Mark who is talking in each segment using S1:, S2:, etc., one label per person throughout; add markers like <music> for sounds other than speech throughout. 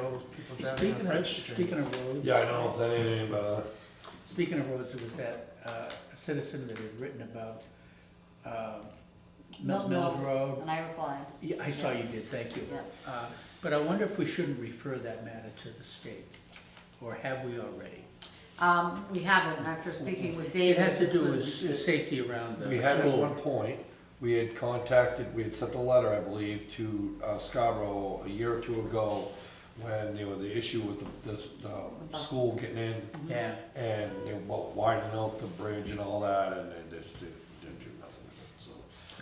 S1: those people down there on
S2: Speaking of,
S1: Bridge Street.
S2: speaking of roads.
S3: Yeah, I don't know anything uh, about
S2: Speaking of roads, it was that uh, citizen that had written about um, Milton Mills Road.
S4: And I replied,
S2: Yeah, I saw you did, thank you.
S4: yeah.
S2: Uh, But I wonder if we shouldn't refer that matter to the state, or have we already?
S4: Um, we haven't, after speaking with
S2: It
S4: David,
S2: has to
S4: this
S2: do with
S4: was,
S2: s- safety around
S3: that.
S2: the
S3: We had at one
S2: school.
S3: point, we had contacted, we had sent a letter, I believe, to uh, Scarborough a year or two ago when there was the issue with the, the, the
S4: buses.
S3: school getting in
S2: Yeah,
S3: and they were widening out the bridge and all that and they just didn't, didn't do nothing with it, so.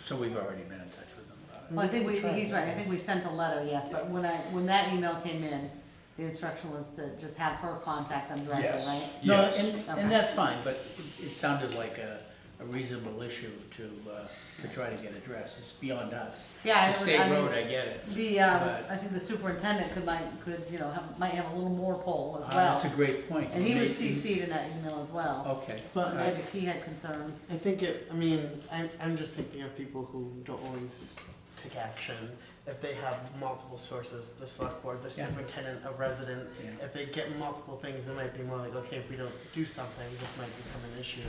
S2: so we've already been in touch with them about it.
S4: well, I think we,
S1: We tried.
S4: he's right, I think we sent a letter, yes, but when I, when that email came in, the instruction was to just have her contact them directly,
S3: Yes,
S4: right?
S2: No,
S3: yes.
S2: and,
S4: Okay.
S2: and that's fine, but it it sounded like a a reasonable issue to, uh, to try to get addressed. It's beyond us.
S4: Yeah,
S2: It's a
S4: I would- I
S2: state
S4: mean-
S2: road, I get it.
S4: The, uh,
S2: But-
S4: I think the superintendent could might, could, you know, have, might have a little more pull as
S2: Uh,
S4: well.
S2: That's a Oh, great point.
S4: And he was
S2: Maybe-
S4: CC'd in that email as well,
S2: Okay.
S4: so
S1: But
S4: maybe
S1: I,
S4: if he had concerns.
S1: I think it, I mean, I'm, I'm just thinking of people who don't always take action. If they have multiple sources, the select board, the
S2: Yeah.
S1: superintendent, a resident,
S2: Yeah.
S1: if they get multiple things, they might be more like, okay, if we don't do something, this might become an issue.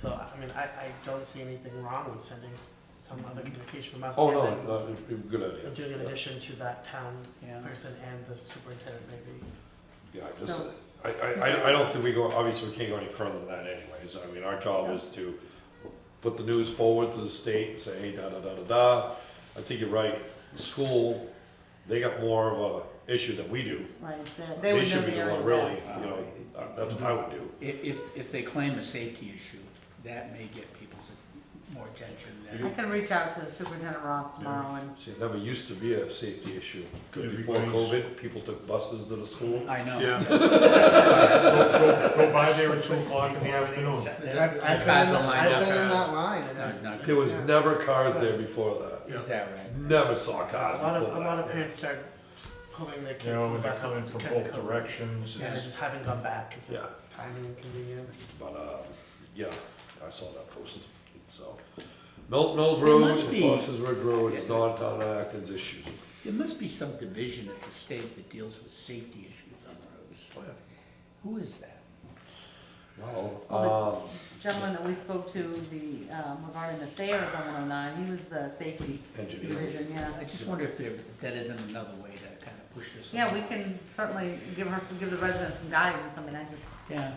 S1: So, I mean, I, I don't see anything wrong with sending s- some other communication from us.
S3: Oh,
S1: and
S3: no,
S1: then
S3: no, it'd be a good idea.
S1: Doing an addition to that town
S2: Yeah.
S1: person and the superintendent maybe.
S3: Yeah, I just,
S4: So-
S3: I, I, I- I don't think we go, obviously, we can't go any further than that anyways, I mean, our job is to put the news forward to the state, and say, hey, da, da, da, da, da, I think you're right, school, they got more of a issue than we do.
S4: Right, they- they would know
S3: should
S4: the
S3: be
S4: area
S3: one Really,
S4: best.
S3: you know, uh, that's what I
S1: Mm-hmm.
S3: would do,
S2: If, if, if they claim a safety issue, that may get people's more attention
S4: I
S2: than.
S4: can reach out to Superintendent Ross tomorrow and,
S3: see, it never used to be a safety issue, before
S5: Everybody's-
S3: COVID, people took buses to the school.
S2: I know.
S5: Yeah. Go, go by there at two o'clock in the afternoon.
S2: That-
S1: I've,
S2: that-
S1: I've
S2: the
S1: been
S2: cars
S1: in,
S2: are
S1: that-
S2: lined
S1: I've
S2: up
S1: been in that
S2: as-
S1: line and
S2: No,
S1: it's.
S2: no.
S3: There was never cars there before that,
S2: Is that right?
S3: never saw
S1: A
S3: cars
S1: lot of,
S3: before
S1: a lot of
S3: that.
S1: parents start pulling their
S5: You
S1: kids
S5: know,
S1: from
S5: when they're
S1: buses
S5: coming from
S1: because of
S5: both
S1: COVID.
S5: directions.
S1: And they
S5: it's-
S1: just haven't gone back because
S3: Yeah.
S1: of timing and convenience.
S3: But, uh, yeah, I saw that posted, so. Milton Mills
S2: It
S3: Road
S2: must
S3: and
S2: be-
S3: Fox's Ridge Road is non-town Acton's issues.
S2: There must be some division at the state that deals with safety issues on roads.
S1: Oh,
S2: Who is that?
S3: Well,
S4: Well,
S3: um,
S4: gentleman that we spoke to, the, um, regarding the fair of one oh nine, he was the safety
S3: engineer,
S4: division, yeah.
S2: I just wonder if there, if that isn't another way to kind of push this.
S4: Yeah, we
S2: along.
S4: can certainly give her, some- give the residents some guidance, I mean, I just, <laughs>
S2: Yeah.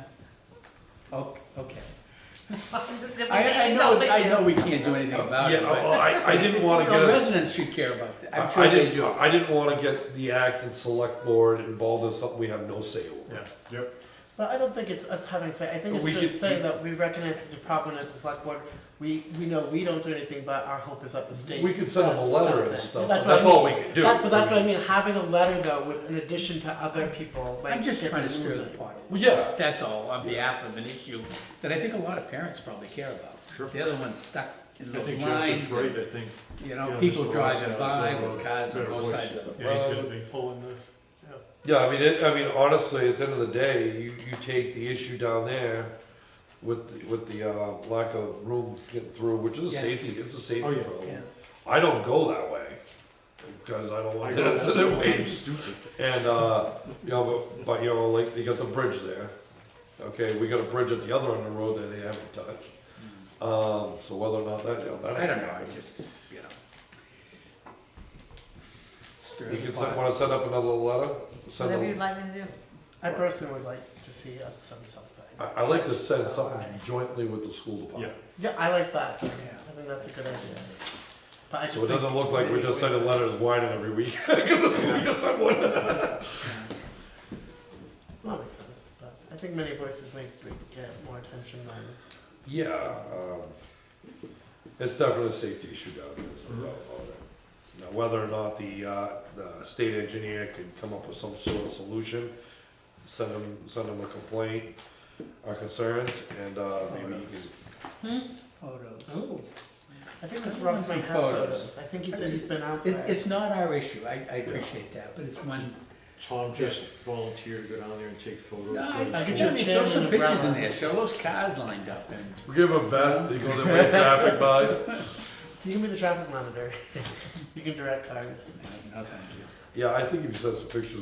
S2: Okay, okay.
S4: I'm just. if we take
S2: I, I
S4: it,
S2: know,
S4: don't
S2: I
S4: make
S2: know
S4: it.
S2: we can't do anything about it,
S3: yeah, well,
S2: but
S3: I, I didn't
S1: <laughs>
S3: wanna get
S2: the
S3: us,
S2: residents should care about that. I'm
S3: I I
S2: sure they
S3: didn't,
S2: do.
S3: I didn't wanna get the Acton Select Board involved in something we have no say over.
S5: Yeah, yep.
S1: But I don't think it's us having say, I think
S3: But
S1: it's
S3: we
S1: just
S3: could-
S1: saying that we recognize it's a problem as a select board. We, we know we don't do anything, but our hope is that the state.
S3: We could send them a
S1: does
S3: letter and
S1: something.
S3: stuff,
S1: That's
S3: but
S1: what I
S3: that's all
S1: mean.
S3: we could do.
S1: That- But that's what I mean, having a letter though, with, in addition to other people, like.
S2: I'm just
S1: get
S2: trying to
S1: them
S2: stir the
S1: moving.
S2: pot.
S3: Well, yeah,
S2: That's all, on behalf of an issue that I think a lot of parents probably care about.
S5: Sure.
S2: They're The other one's stuck in
S5: I
S2: those
S5: think Jeff
S2: lines,
S5: is right, I think.
S2: and, you
S5: you
S2: know,
S5: know,
S2: people
S5: Mr.
S2: driving
S5: Ross
S2: by
S5: has a
S2: with cars on
S5: better
S2: both
S5: voice.
S2: sides of the
S5: Yeah, he's gonna
S2: road.
S5: be pulling this.
S3: yeah, I mean, it, I mean, honestly, at the end of the day, you, you take the issue down there with, the- with the, uh, lack of room getting through, which is a
S2: Yeah.
S3: safety, it's a safety
S5: Oh, yeah.
S3: problem.
S2: Yeah.
S3: I don't go that way because I don't want
S5: I
S3: to
S5: go
S3: answer
S5: that
S3: their
S5: way.
S3: waves. <laughs> And uh, you know, but, but you know, like you got the bridge there. Okay, we got a bridge at the other end of the road that they haven't touched. Um, so whether or not that, you know, that
S2: I don't know, I
S3: happens.
S2: just, you know. Stir
S3: We
S2: the
S3: can
S2: pot.
S3: set, want to set up another letter. Send
S4: Whatever
S3: a-
S4: you'd like me to do.
S1: I personally would like to see us send something.
S3: I, I like to send something jointly with the school department.
S1: Yeah, I like that. I
S2: Yeah.
S1: think that's a good idea. But I just.
S3: So it doesn't
S1: think
S3: look like we're just sending
S1: maybe we-
S3: letters whining every week <laughs> because we just sent one.
S1: Well, that makes sense, but I think many voices may get more attention than.
S3: Yeah, um, it's definitely a safety issue down there, there's no doubt about it. Now, whether or not the, uh, the state engineer can come up with some sort of solution, send them, send them a complaint, our concerns, and, uh, maybe you can,
S2: Photos.
S1: I think Mr.
S2: Someone
S1: Ross might
S2: took
S1: have
S2: photos.
S1: photos. I think he said he's been out
S2: It,
S1: there.
S2: it's not our issue, I, I appreciate that, but it's one,
S5: <laughs> Tom just volunteered to go down there and take photos.
S2: no, I,
S5: for the
S2: I
S1: get
S5: school.
S1: your
S2: mean,
S1: chair
S2: throw some
S1: and a
S2: pictures in
S1: umbrella.
S2: there, show those cars lined up and.
S3: we give them a vest, they go there with traffic by.
S1: You can be the traffic monitor. <laughs> you can direct cars.
S2: No, thank you.
S3: Yeah, I think if you send some pictures